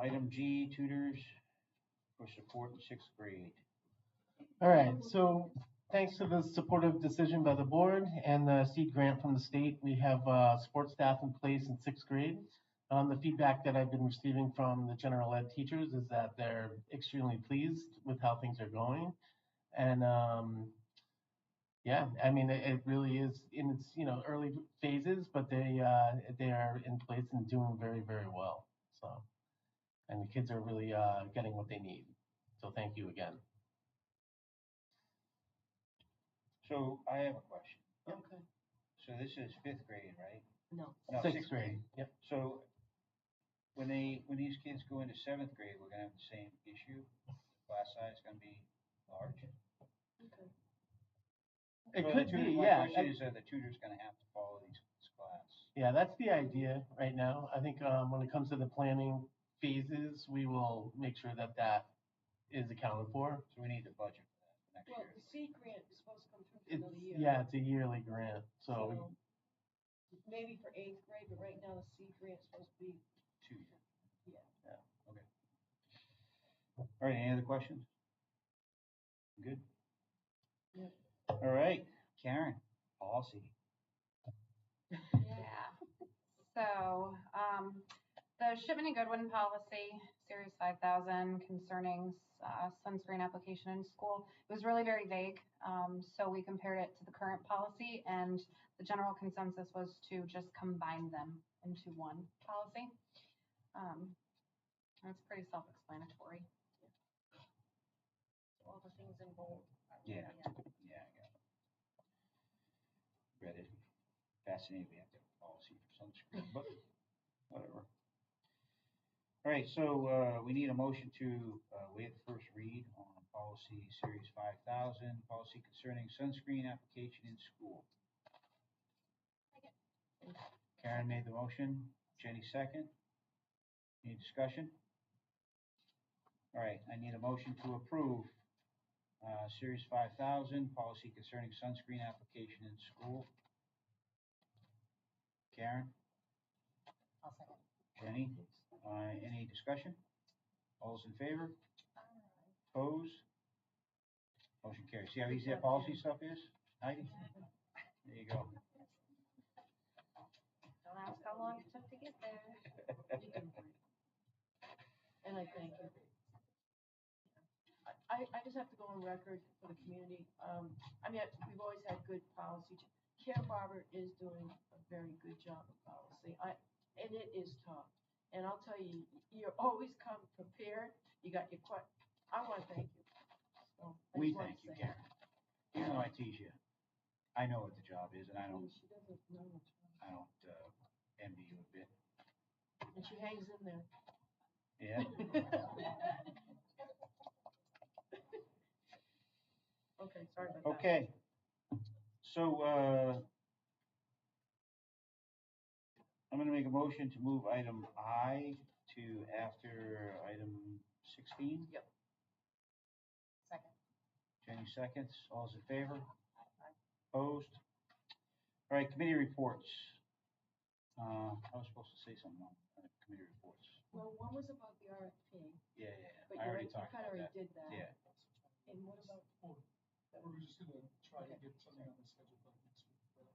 item G, tutors for support in sixth grade. All right, so thanks to the supportive decision by the board and the seed grant from the state, we have uh, support staff in place in sixth grade. Um, The feedback that I've been receiving from the general ed teachers is that they're extremely pleased with how things are going. And um, yeah, I mean, it it really is in its, you know, early phases, but they, uh, they are in place and doing very, very well, so. And the kids are really uh, getting what they need, so thank you again. So I have a question. Okay, So this is fifth grade, right? no, No, Sixth grade, yep. So when they, when these kids go into seventh grade, we're gonna have the same issue? Class size gonna be large? okay. It So the could tutor- be, my yeah. question I- is, are the tutors gonna have to follow these, this class? Yeah, that's the idea right now. I think um, when it comes to the planning phases, we will make sure that that is accounted for. So we need to budget for that next Well, year. the seed grant is supposed to come through for It's, another year. yeah, it's a yearly grant, so, so Maybe for eighth grade, but right now the seed grant's supposed to be, Two years. Yeah. Yeah, okay. All right, any other questions? Good? Yep. All right, Karen, policy. Yeah. So, um, the shipment and Goodwin policy, series five thousand concerning, uh, sunscreen application in school, it was really very vague. Um, so we compared it to the current policy and the general consensus was to just combine them into one policy. Um, that's pretty self-explanatory. all the things in bold. Yeah, yeah, I got it. Read it. Fascinating, we have to have a policy for sunscreen, but whatever. All right, so, uh, we need a motion to, uh, waive the first read on policy series five thousand, policy concerning sunscreen application in school. Karen made the motion, Jenny second. Any discussion? All right, I need a motion to approve uh, Series 5000, policy concerning sunscreen application in school. Karen, I'll second. Jenny, uh, any discussion? All those in favor? Opposed? Motion carries. See how easy that policy stuff is? Heidi? There you go. Don't ask how long it took to get there. And I thank you. I- I, I just have to go on record for the community. Um, I mean, we've always had good policy. Care Barber is doing a very good job of policy. I, and it is tough. And I'll tell you, you always come prepared. You got your que, I want to thank you. So, I We just thank wanna you, say- Karen. Even though I tease you, I know what the job is and I I mean, don't, She doesn't know much. I don't uh, envy you a bit. And she hangs in there. Yeah? Okay, sorry about that. Okay. So, uh, I'm gonna make a motion to move item I to after item sixteen. Yep. Second. Jenny seconds. All those in favor? Opposed? All right, committee reports. Uh, I was supposed to say something on uh, committee reports. Well, one was about the RFP, Yeah, yeah, but yeah. I you already already, you talked kind of about already that. did that. Yeah. And what about, Or We're just gonna try to get something on the schedule for next week, but,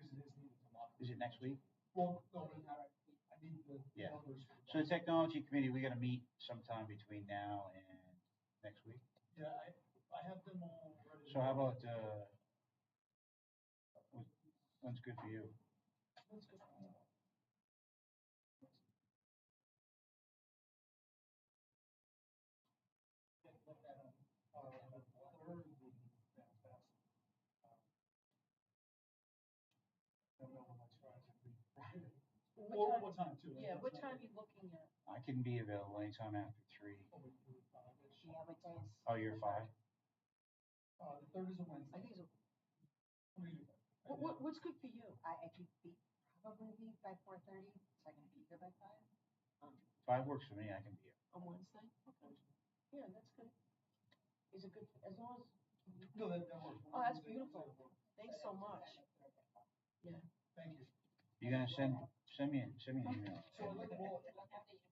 because it is needed to lock. Is it next week? Well, no, but I, I need the Yeah. numbers. for So the that. technology committee, we gotta meet sometime between now and next week. Yeah, I, I have them all ready. So how about, uh, wh- when's good for you? what's good? Get like that on, uh, the third would be fantastic. Um, Don't know what my tries would be. Well, What what time time, too? like, yeah, what time not- you looking at? I can be available anytime after three. Oh, we do it five-ish. Oh, you're five? Uh, the third is a I Wednesday. think it's, What do you do? what, what, what's good for you? I, I could be, probably be by four thirty, so I can be here by five. Five works for me, I can be here. On Wednesday? Okay. Yeah, that's good. Is it good, as long as, No, that, that works. Oh, that's Wednesday, beautiful. Wednesday works. thanks so much. Thank you. You're gonna send, send me, an- send me an email. So I'd like to roll-